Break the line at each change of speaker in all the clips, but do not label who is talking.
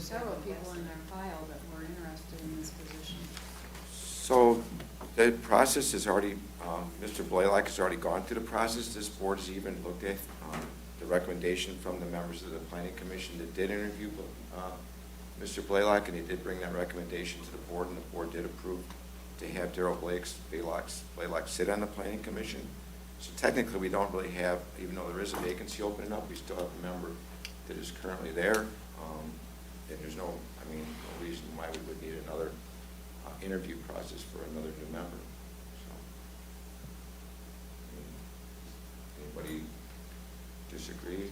several people in our file that were interested in this position.
So the process is already, um, Mr. Blaylock has already gone through the process. This board has even looked at um, the recommendation from the members of the planning commission that did interview uh, Mr. Blaylock, and he did bring that recommendation to the board, and the board did approve to have Daryl Blake's, Blaylock's, Blaylock sit on the planning commission. So technically, we don't really have, even though there is a vacancy opening up, we still have a member that is currently there. Um, And there's no, I mean, no reason why we would need another uh, interview process for another new member, so. I mean, Anybody disagree?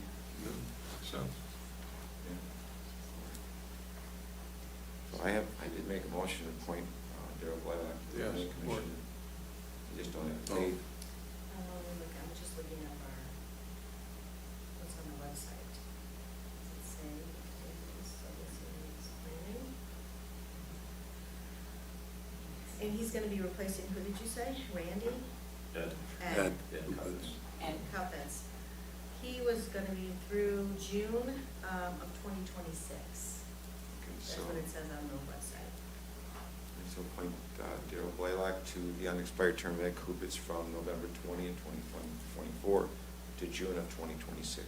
So,
So I have, I did make a motion to appoint uh, Daryl Blaylock to the
Yes,
planning
support. Oh.
commission. I just don't have faith.
Um, I'm just looking at our, what's on the website. Does it say if it is, so this is planning? And he's gonna be replacing, who did you say? Randy?
Ed.
Ed.
Ed Cuppets. He was gonna be through June, um, of twenty twenty-six.
Okay,
That's
So,
what it says on the website.
let's appoint uh, Daryl Blaylock to the unexpired term of Ed Kubitz from November 20 and 2024 to June of 2026.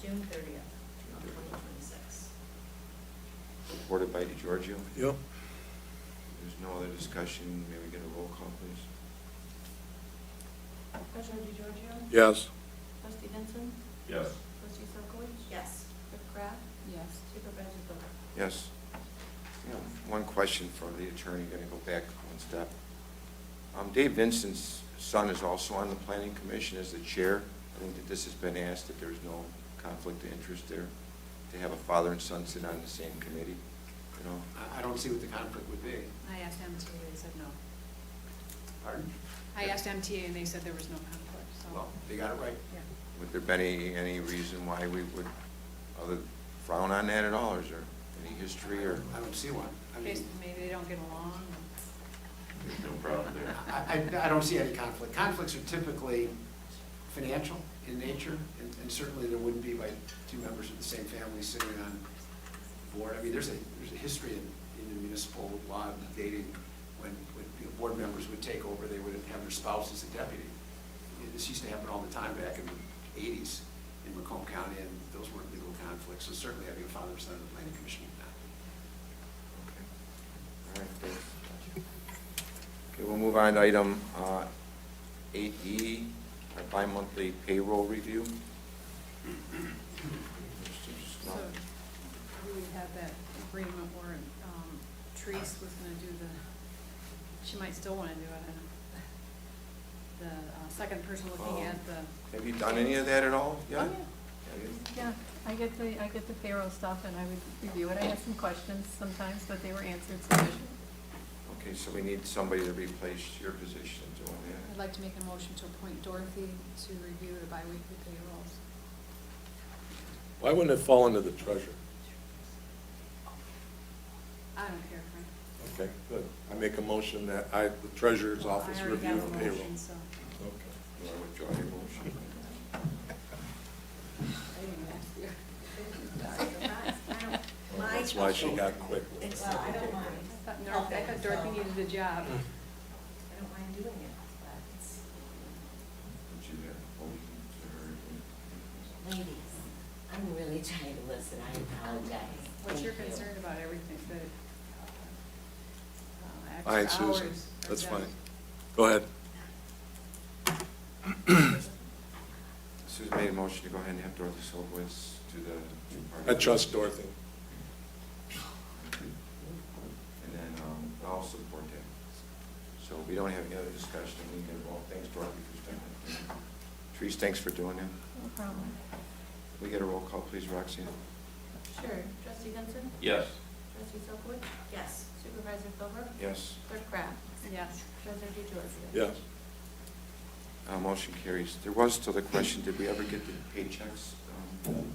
June
June
thirtieth of
30th.
twenty twenty-six.
Supported by DeGiorgio.
yep,
There's no other discussion. May we get a roll call, please?
Treasurer DeGiorgio?
yes,
Trustee Benson?
Yes.
Trustee Sokolich?
Yes.
Clerk Wright?
Yes.
Supervisor Dunn?
Yes. Yeah, One question for the attorney, going to go back one step. Um, Dave Vincent's son is also on the planning commission as the chair. I think that this has been asked, that there's no conflict of interest there, to have a father and son sit on the same committee, you know?
I- I don't see what the conflict would be.
I asked MTA, they said no.
Pardon?
I asked MTA and they said there was no conflict, so.
Well, they got it right.
Yeah.
Would there been any, any reason why we would other frown on that at all, or is there any history or?
I don't see one. I mean,
Basically, maybe they don't get along.
There's no problem there.
I, I I don't see any conflict. Conflicts are typically financial in nature, and and certainly there wouldn't be by two members of the same family sitting on a board. I mean, there's a, there's a history in, in the municipal law of dating, when, when you know, board members would take over, they would have their spouse as a deputy. And This used to happen all the time back in the eighties in Macomb County, and those weren't legal conflicts, so certainly having a father and son on the planning commission would not
All
be.
right, thanks. Okay, we'll move on to item uh, 8E, our bi-monthly payroll review. Mr.
So
Snow.
we had that agreement where um, Therese was gonna do the, she might still wanna do it. I don't know. The uh, second person looking
Oh.
at the.
Have you done any of that at all yet?
Oh,
Have you?
Yeah, I get the, I get the payroll stuff and I would review it. I had some questions sometimes, but they were answered sufficiently.
Okay, so we need somebody to replace your position doing
I'd
that.
like to make a motion to appoint Dorothy to review the biweekly payrolls.
why wouldn't it fall under the treasurer?
I don't care, Frank.
Okay, good, I make a motion that I, the treasurer's office
I already
review
have a
and payroll.
motion, so.
Okay.
You want to withdraw your motion?
I didn't ask
Mm.
you.
Surprise. I don't-
Well,
my
That's why she
question-
got quick with it.
Well, I don't mind.
I thought Nor- I thought Dorothy needed a job.
I don't mind doing it, but it's
Would you uh, have a motion
Ladies, I'm really trying to listen, I apologize.
What's your
Thank you.
concern about everything, that uh,
All right,
extra hours?
Susan,
are
that's
done?
fine. Go ahead.
Susan made a motion to go ahead and have Dorothy Solowitz do the.
I trust Dorothy.
And then um, I'll support that. So we don't have any other discussion, we can involve, thanks Dorothy for standing. Trees, thanks for doing that.
No problem.
We get a roll call, please, Roxanne?
Sure. Trustee Benson?
Yes.
Trustee Sokolich?
Yes.
Supervisor Silver?
Yes.
Clerk Wright?
Yes.
Treasurer DeGiorgio?
Yes,
Uh, Motion carries. There was still the question, did we ever get the paychecks um,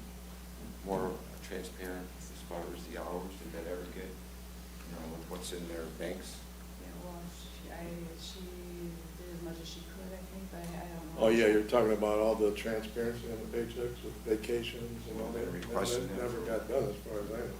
more transparent as far as the hours? Did that ever get, you know, with what's in their banks?
Yeah, well, she, I, she did as much as she could, I think, but I I don't know.
oh yeah, you're talking about all the transparency on the paychecks with vacations and all
Well,
that.
they're requesting that.
That Never got done as far as I know.